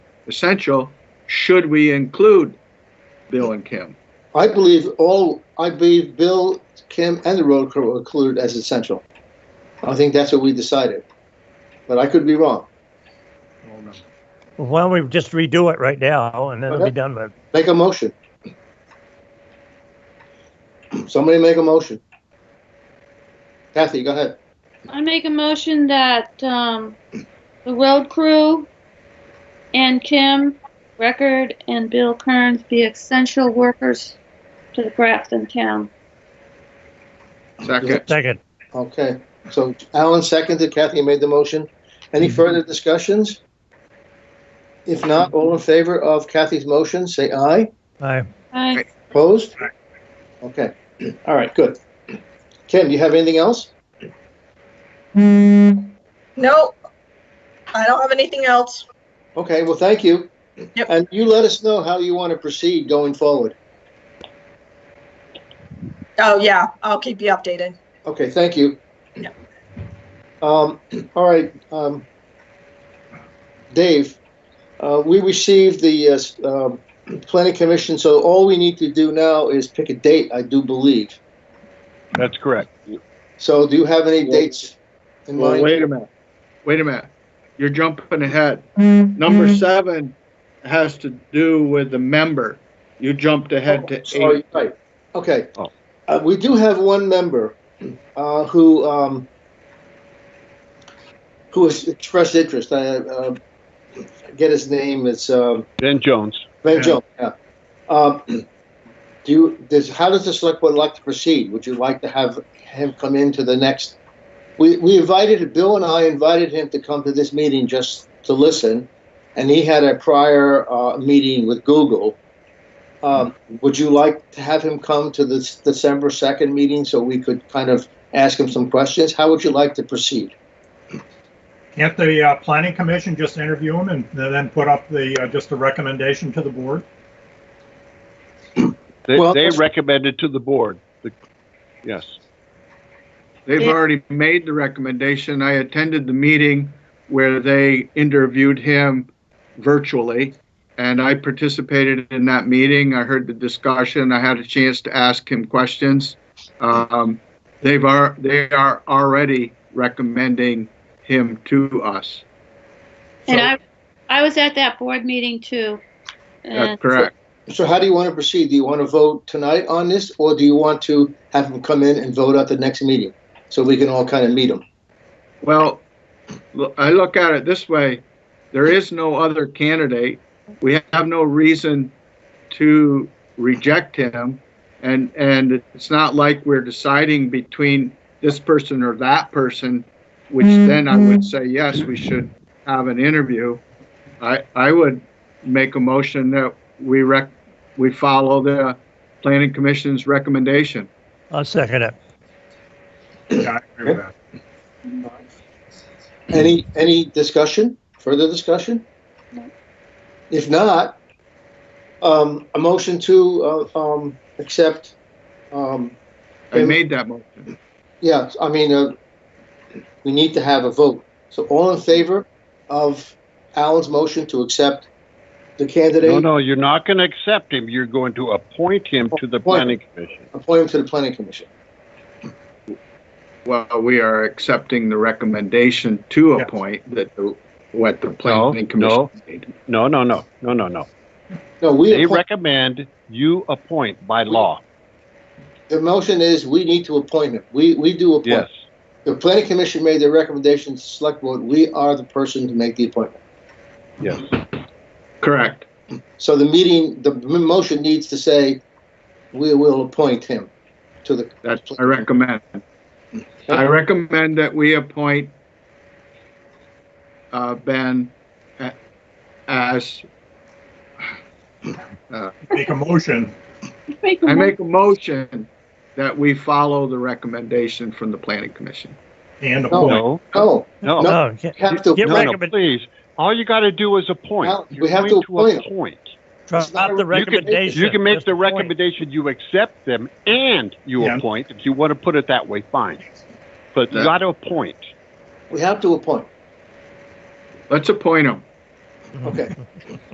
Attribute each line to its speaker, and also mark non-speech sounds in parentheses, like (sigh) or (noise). Speaker 1: essential, should we include Bill and Kim?
Speaker 2: I believe all, I believe Bill, Kim, and the road crew are included as essential. I think that's what we decided, but I could be wrong.
Speaker 3: Why don't we just redo it right now and then it'll be
Speaker 2: Okay.
Speaker 3: done with.
Speaker 2: Make a motion. Somebody make a motion. Kathy, go ahead.
Speaker 4: I make a motion that um, the road crew and Kim Record and Bill Kearns be essential workers to the Grafton town.
Speaker 1: Second,
Speaker 3: Second.
Speaker 2: Okay, so Alan seconded, Kathy made the motion. Any further discussions? If not, all in favor of Kathy's motion, say aye.
Speaker 3: Aye.
Speaker 4: I,
Speaker 2: Opposed? Okay, (clears throat) all right, good. Kim, you have anything else?
Speaker 5: No, I don't have anything else.
Speaker 2: Okay, well, thank you.
Speaker 5: Yep.
Speaker 2: And you let us know how you want to proceed going forward.
Speaker 5: Oh, yeah, I'll keep you updated.
Speaker 2: Okay, thank you.
Speaker 5: Yep.
Speaker 2: Um, all right, um, Dave, uh, we received the, uh, s- um, planning commission, so all we need to do now is pick a date, I do believe.
Speaker 6: That's correct.
Speaker 2: So do you have any
Speaker 6: Well-
Speaker 2: dates in
Speaker 6: Well,
Speaker 2: mind?
Speaker 6: wait a minute.
Speaker 1: wait a minute, you're jumping ahead. Number seven has to do with the member. You jumped ahead to
Speaker 2: Oh, Sorry,
Speaker 1: eight.
Speaker 2: right. Okay.
Speaker 6: Oh.
Speaker 2: Uh, we do have one member, uh, who, um, who has expressed interest. I, uh, get his name, it's, um,
Speaker 6: Ben Jones.
Speaker 2: Ben
Speaker 1: Yeah.
Speaker 2: Jones, yeah. Um, (clears throat) do you, does, how does the select board like to proceed? Would you like to have him come into the next? We, we invited, Bill and I invited him to come to this meeting just to listen, and he had a prior, uh, meeting with Google. Um, would you like to have him come to this December second meeting so we could kind of ask him some questions? How would you like to proceed?
Speaker 7: Can't the uh, planning commission just interview him and then put up the, uh, just a recommendation to the board?
Speaker 6: They,
Speaker 2: Well-
Speaker 6: they recommended to the board. The, yes.
Speaker 1: They've already made the recommendation. I attended the meeting where they interviewed him virtually, and I participated in that meeting. I heard the discussion. I had a chance to ask him questions. Um, they've are they are already recommending him to us.
Speaker 4: and I, I was at that board meeting too. And-
Speaker 1: That's correct.
Speaker 2: So how do you want to proceed? Do you want to vote tonight on this, or do you want to have him come in and vote at the next meeting? So we can all kind of meet him?
Speaker 1: Well, lo- I look at it this way, there is no other candidate. We have no reason to reject him. And, and it's not like we're deciding between this person or that person, which then I would say, yes, we should have an interview. I, I would make a motion that we rec, we follow the planning commission's recommendation.
Speaker 3: I'll second it.
Speaker 7: Yeah, I agree with that.
Speaker 2: Any, any discussion, further discussion?
Speaker 4: No.
Speaker 2: If not, um, a motion to, uh, um, accept, um,
Speaker 1: I made that motion.
Speaker 2: yeah, I mean, uh, we need to have a vote. So all in favor of Alan's motion to accept the
Speaker 6: No,
Speaker 2: candidate,
Speaker 6: no, you're not going to accept him. You're going to appoint him to the planning commission.
Speaker 2: appoint him to the planning commission?
Speaker 1: Well, we are accepting the recommendation to
Speaker 7: Yes.
Speaker 1: appoint that, the- what the planning commission
Speaker 6: no.
Speaker 1: made.
Speaker 6: No, no, no, no, no, no.
Speaker 2: No, we
Speaker 6: They
Speaker 2: appoint.
Speaker 6: recommend you appoint by law.
Speaker 2: The motion is we need to appoint him. We, we do
Speaker 6: Yes.
Speaker 2: appoint. The planning commission made their recommendation to select board. We are the person to make the appointment.
Speaker 6: Yes.
Speaker 1: Correct.
Speaker 2: So the meeting, the m- motion needs to say, we will appoint him to the.
Speaker 1: That's, I recommend. I recommend that we appoint uh, Ben a- as,
Speaker 7: Make a motion.
Speaker 4: Make a
Speaker 1: I
Speaker 6: Mm-hmm.
Speaker 4: mo-
Speaker 1: make a motion that we follow the recommendation from the planning commission.
Speaker 7: And
Speaker 2: No.
Speaker 7: appoint.
Speaker 6: No,
Speaker 2: No, No,
Speaker 6: no.
Speaker 3: No, you can't-
Speaker 2: oh, we have to,
Speaker 6: No,
Speaker 3: Get
Speaker 2: no,
Speaker 6: no,
Speaker 3: recommend-
Speaker 6: please. All you got to do is appoint.
Speaker 2: Well, we
Speaker 6: You're
Speaker 2: have
Speaker 6: going
Speaker 2: to appoint him.
Speaker 6: appoint.
Speaker 2: It's not
Speaker 3: drop
Speaker 2: a-
Speaker 3: the
Speaker 6: You can-
Speaker 3: recommendation.
Speaker 6: You can make
Speaker 3: That's
Speaker 6: the
Speaker 3: point.
Speaker 6: recommendation, you accept them and you
Speaker 7: Yeah.
Speaker 6: appoint. If you want to put it that way, fine. But you
Speaker 1: Yeah.
Speaker 6: got to appoint.
Speaker 2: we have to appoint.
Speaker 1: Let's appoint him.
Speaker 2: Okay.